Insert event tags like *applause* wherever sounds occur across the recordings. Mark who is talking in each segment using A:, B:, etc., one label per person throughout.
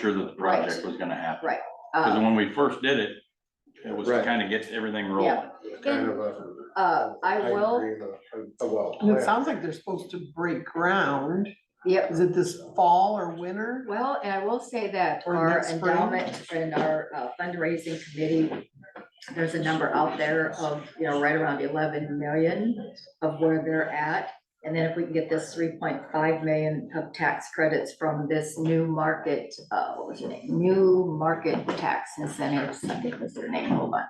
A: sure that the project was gonna happen.
B: Right.
A: Cause
B: Uh,
A: when we first did it, it was to
C: Right.
A: kind of get everything rolling.
C: It's Kind of a.
B: uh, I will,
C: agree with A a well.
D: And it
C: plan.
D: sounds like they're supposed to break ground.
B: yep,
D: Is it this fall or winter?
B: well, and I will say that
D: Or
B: our
D: next spring.
B: endowment and our uh, fundraising committee, there's a number out there of, you know, right around eleven million of where they're at. And then if we can get this three point five million of tax credits from this new market, uh, what was her name? New market tax incentives, I think was their name, hold on.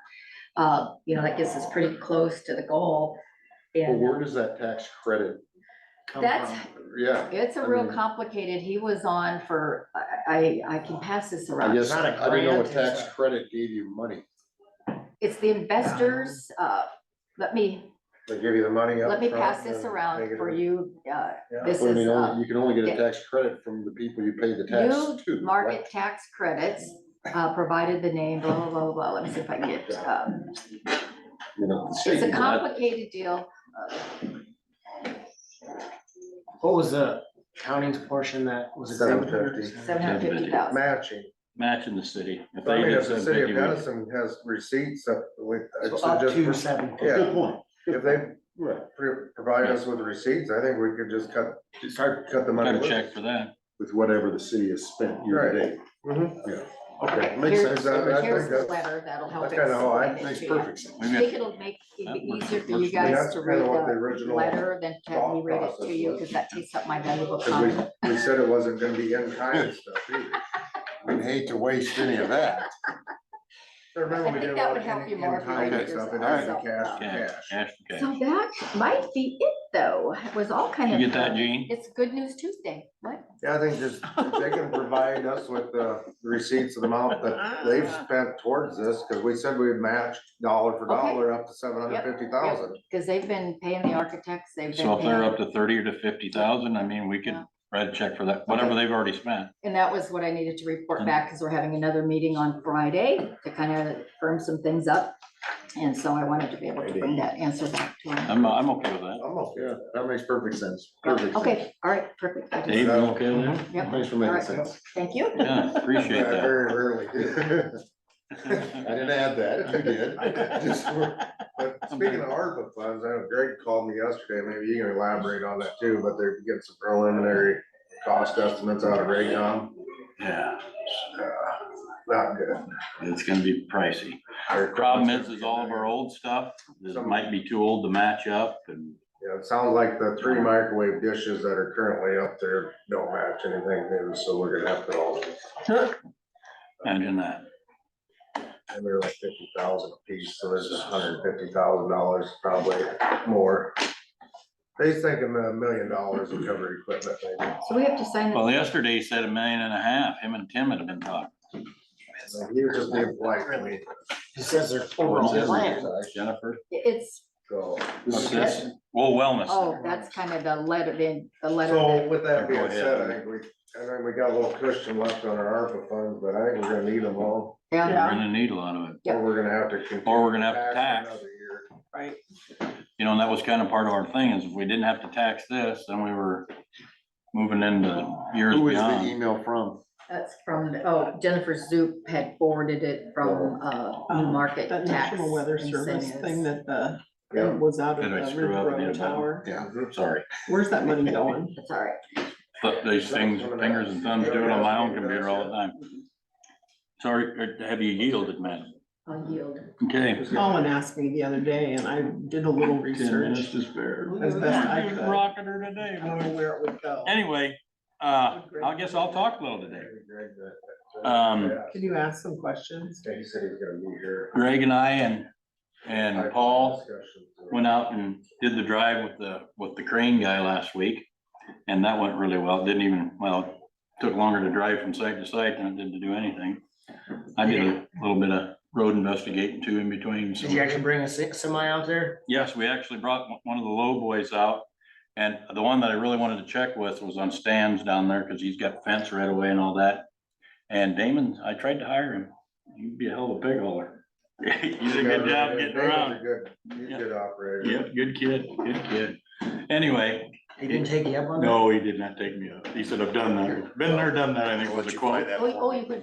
B: Uh, you know, that gets us pretty close to the goal.
C: But
B: And
C: where does that tax credit come
B: That's-
C: from? Yeah,
B: It's a
C: I
B: real
C: mean-
B: complicated, he was on for, I, I I can pass this
C: I
B: around.
C: guess,
D: not a
C: I didn't know
D: grant,
C: what tax
D: it's a-
C: credit gave you money.
B: It's the investors, uh, let me,
C: They give you the money
B: let me pass this around for you. Uh, This
C: I
B: is,
C: mean,
B: uh,
C: you can only get
B: yeah.
C: a tax credit from the people you pay the tax
B: new
C: to.
B: market tax credits, uh, provided the name, blah, blah, blah, blah, let me see if I can get, um,
C: You know, the
B: it's a
C: state.
B: complicated deal.
E: What was the county's portion that was?
C: Seven
E: exempted?
C: fifty.
B: Seven hundred fifty thousand,
F: matching.
A: Match in the city. If
F: I
A: they
F: mean,
A: did
F: if the
A: something,
F: city of
A: you would-
F: Denison has receipts that we, I'd
E: So Up to
F: suggest,
E: seven.
F: yeah.
C: Good point.
F: if they
C: Right.
F: pro- provide us with receipts, I think we could just cut,
C: It's hard.
F: cut the money.
A: Got a
F: loose.
A: check for that.
C: With whatever the city has spent year to
F: Right.
C: date.
F: Mhm.
C: Okay,
B: Here's-
C: makes sense. That- that- I
B: here's
C: think
B: the
C: that's-
B: letter, that'll help.
F: that's kinda how I-
B: explain it
C: Makes
B: to you.
C: perfect sense.
B: I
A: We've
B: think
A: got,
B: it'll make
A: That
B: it
A: works-
B: easier for
A: works
B: you
A: for me.
B: guys
F: That's
B: to
F: kinda
B: read
F: what the
B: the
F: original
B: letter than to have me
F: thought
B: read it to
F: process
B: you,
F: was.
B: because that takes up my valuable time.
F: Cause we, we said it wasn't gonna be in kind and stuff either.
C: I'd hate to waste any of that.
F: I remember
B: I
F: we
B: think
F: did a
B: that
F: lot
B: would
F: of
B: help
F: in-
B: you more if
F: in
B: you
F: kind
B: wrote
F: and stuff,
B: yourself
F: and then
B: up.
F: cash for
A: yeah,
F: cash.
A: cash for cash.
B: So that might be it, though. It was all kind
A: You
B: of.
A: get that, Gene?
B: It's Good News Tuesday. What?
F: Yeah, I think just, if they can provide us with the receipts of the amount
D: Ah.
F: that they've spent towards this, cause we said we'd match dollar for
B: Ah. Okay.
F: dollar up to seven hundred fifty thousand.
B: Because they've been paying the architects, they've
A: So
B: been
A: if they're up
B: paying,
A: to thirty or to fifty thousand, I mean, we could
B: Yeah.
A: write a check for that, whatever
B: Okay.
A: they've already spent.
B: and that was what I needed to report
A: Mm.
B: back, because we're having another meeting on Friday to kind of firm some things up. And so I wanted to be able to bring that answer back to them.
A: I'm, I'm okay with that.
F: Almost,
C: Yeah, that makes perfect sense. Perfect. sense.
B: Okay, all right, perfect. I
A: Dave,
B: just-
A: you okay with that?
B: Yep,
C: Thanks for making sense.
B: thank you.
A: Yeah, appreciate
C: I
A: that.
C: Very rarely *laughs* do. I
A: That's
C: didn't add that, you did.
F: *laughs*
C: Just for-
F: But speaking of ARPA funds, I know Greg called me yesterday, maybe you can elaborate on that too, but they're getting some preliminary cost estimates out of Raycom.
A: *laughs* Yeah,
F: Not good.
A: it's gonna be pricey.
F: Our
A: Problem
F: equipment's
A: is, is
F: gonna be
A: all of
F: in
A: our
F: there.
A: old stuff, this might be too old to match up and
F: Yeah, it sounds like the three microwave dishes that are currently up there don't match anything new, so we're gonna have to all,
A: imagine that.
F: and they're like fifty thousand a piece, so this is hundred and fifty thousand dollars probably more. They's thinking a million dollars to cover equipment maybe.
B: So we have to sign
A: Well,
B: this.
A: yesterday he said a million and a half, him and Tim had been talking.
F: He was just being polite to me,
E: He says their overall plan.
A: Jennifer?
B: It's,
F: so.
C: This
A: What's
C: is
A: this? Well, wellness,
B: oh, that's kind of the letter, the the letter.
F: So with
A: Yeah,
F: that
A: go
F: being
A: ahead.
F: said, I think we, I think we got a little cushion left on our ARPA funds, but I think we're gonna need them all.
A: we're
B: Yeah,
A: gonna need a lot of it,
B: Yeah.
F: Or we're gonna have to. continue
A: or we're gonna have to tax,
F: tax another year.
A: you know, and that was kind of part of our thing, is if we didn't have to tax this, then we were moving into years
C: Who is the
A: beyond.
C: email from?
B: that's from, oh, Jennifer Zoop had forwarded it from, uh, New
D: Um,
B: Market
D: That
B: Tax.
D: National Weather Service
B: Incentives.
D: thing that the,
F: Yeah.
D: that was out of
A: Did I
D: the
A: screw up and
D: River
A: did a button?
D: Tower.
C: Yeah.
A: Sorry,
D: Where's that money going?
B: That's all right.
A: but these things, fingers and thumbs, do it on my own computer all the time. Sorry, uh, have you yielded, man?
B: I'll yield.
A: Okay.
D: Colin asked me the other day and I did a little research.
A: to spare.
D: As best I could.
A: Rocking her today,
D: I don't know
A: boy.
D: where it would go.
A: Anyway, uh, I guess I'll talk a little today.
F: Greg, that- that-
A: Um,
F: Yeah,
D: Can you ask some questions?
F: He said he's gonna be here.
A: Greg and I and, and Paul went out and did the drive with the, with the crane guy last week. And that went really well. Didn't even, well, took longer to drive from site to site than it did to do anything. I did a little bit of road investigating too in between. so-
E: Did you actually bring a se- semi out there?
A: Yes, we actually brought one- one of the low boys out. And the one that I really wanted to check with was on stands down there because he's got fence right away and all that. And Damon, I tried to hire him. He'd be a hell of a pig hauler. *laughs* He did a good job getting around.
F: Good, he's a good operator.
A: Yep, good kid, good kid. Anyway,
D: He didn't take you up on that?
A: No, he did not take me up. He said, I've done that. Been there, done that, I think was the quote.
B: Oh, you- oh, you could